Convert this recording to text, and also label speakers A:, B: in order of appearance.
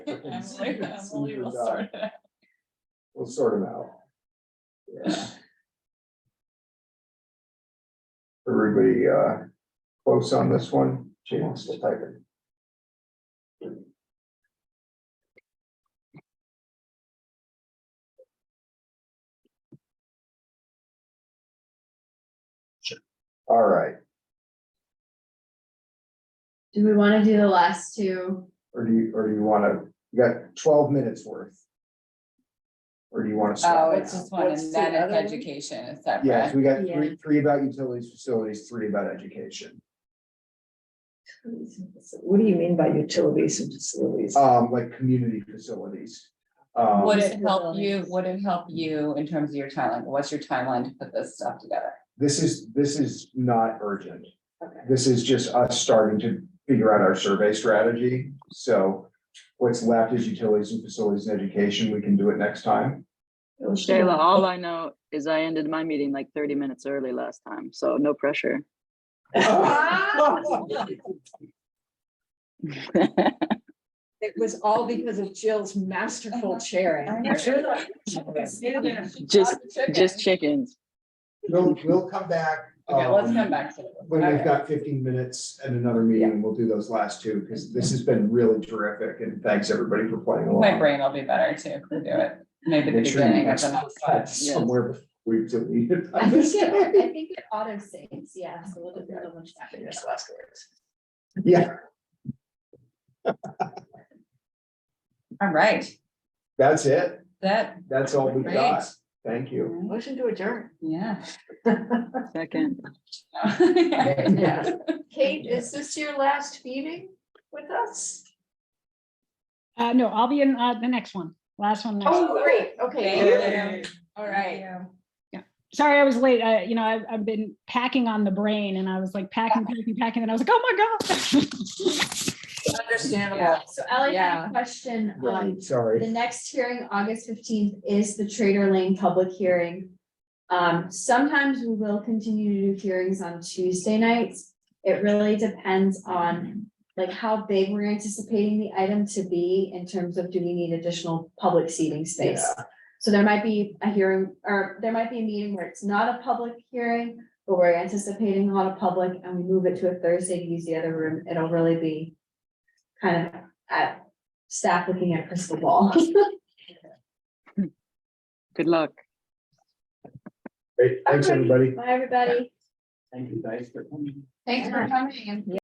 A: Emily, Emily will
B: die.
A: sort it.
B: We'll sort them out. Yeah. Everybody, uh, close on this one, she wants to type it. All right,
C: Do we wanna do the last two?
B: or do you, or do you wanna, you got twelve minutes worth? Or do you wanna stop?
A: Oh,
B: now?
A: it's just one,
D: What's
A: and
D: the
A: then
D: other
A: it's
D: one?
A: education, is that
B: Yes,
A: right?
B: we got three,
C: Yeah.
B: three about utilities, facilities, three about education.
D: What do you mean by utilities and facilities?
B: Um, like community facilities. Um,
A: Would it help
D: Disabilities.
A: you, would it help you in terms of your timeline, what's your timeline to put this stuff together?
B: this is, this is not urgent.
D: Okay.
B: This is just us starting to figure out our survey strategy. So what's left is utilities and facilities and education. We can do it next time.
E: Shayla, all I know is I ended my meeting like thirty minutes early last time, so no pressure.
D: It was all because of Jill's masterful chairing.
E: Just- Just chickens.
B: We'll, we'll come back.
A: Okay, let's
B: um,
A: come back to it.
B: When
A: Okay.
B: we've got fifteen minutes and another meeting, we'll do those last two, because this has been really terrific, and thanks everybody for playing
A: My
B: along.
A: brain will be better too, if we do it, maybe the
B: Make sure you
A: beginning
B: guys-
A: of the next one.
B: Somewhere we've deleted.
C: I think it, I think it auto saves, yeah, so we'll just.
B: Okay.
C: double check.
B: Yeah,
A: All right,
B: that's it.
A: that,
B: That's all we
A: great,
B: got. Thank you.
D: Motion to adjourn.
A: yeah.
E: Second.
D: Yeah. Kate, is this your last meeting with us?
F: Uh, no, I'll be in, uh, the next one, last one next.
D: Oh, great, okay.
A: Thank you. All right.
F: Sorry, I was late. Uh, you know, I've, I've been packing on the brain and I was like packing, packing, packing, and I was like, oh my God.
A: Yeah.
D: Understandable.
C: So Ellie had
A: Yeah.
C: a question, um,
B: Right, sorry.
C: the next hearing, August fifteenth, is the Trader Lane public hearing. Um, sometimes we will continue to do hearings on Tuesday nights. It really depends on like how big we're anticipating the item to be in terms of do we need additional public seating space? So there might be a hearing, or there might be a meeting where it's not a public hearing, but we're anticipating a lot of public and we move it to a Thursday to use the other room. It'll really be kind of at staff looking at crystal ball.
E: Good luck.
B: Great, thanks, everybody.
C: Bye, everybody.
B: Thank you, guys, for coming.
C: Thanks for coming.